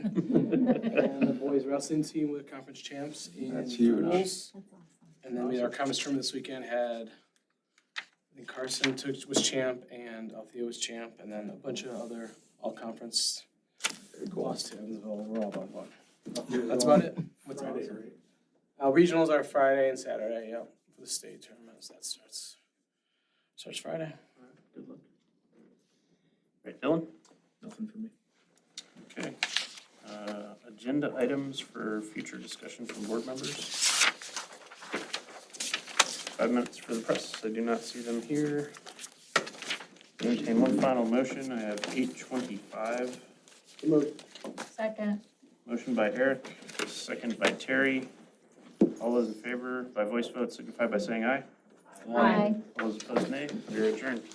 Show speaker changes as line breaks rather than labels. boys wrestling team were conference champs in
That's huge.
doubles. And then we, our conference tournament this weekend had, I think Carson took, was champ and Althea was champ, and then a bunch of other all-conference lost to Evansville. We're all about one. That's about it. What's that? Uh, regionals are Friday and Saturday, yeah, for the state tournaments. That starts, starts Friday.
Good luck. Right, Dylan?
Nothing for me.
Okay. Uh, Agenda items for future discussion from board members. Five minutes for the press. I do not see them here. Entertain one final motion. I have eight twenty-five.
Second.
Motion by Eric, second by Terry. All those in favor by voice vote signify by saying aye.
Aye.
All those opposed, nay. We are adjourned.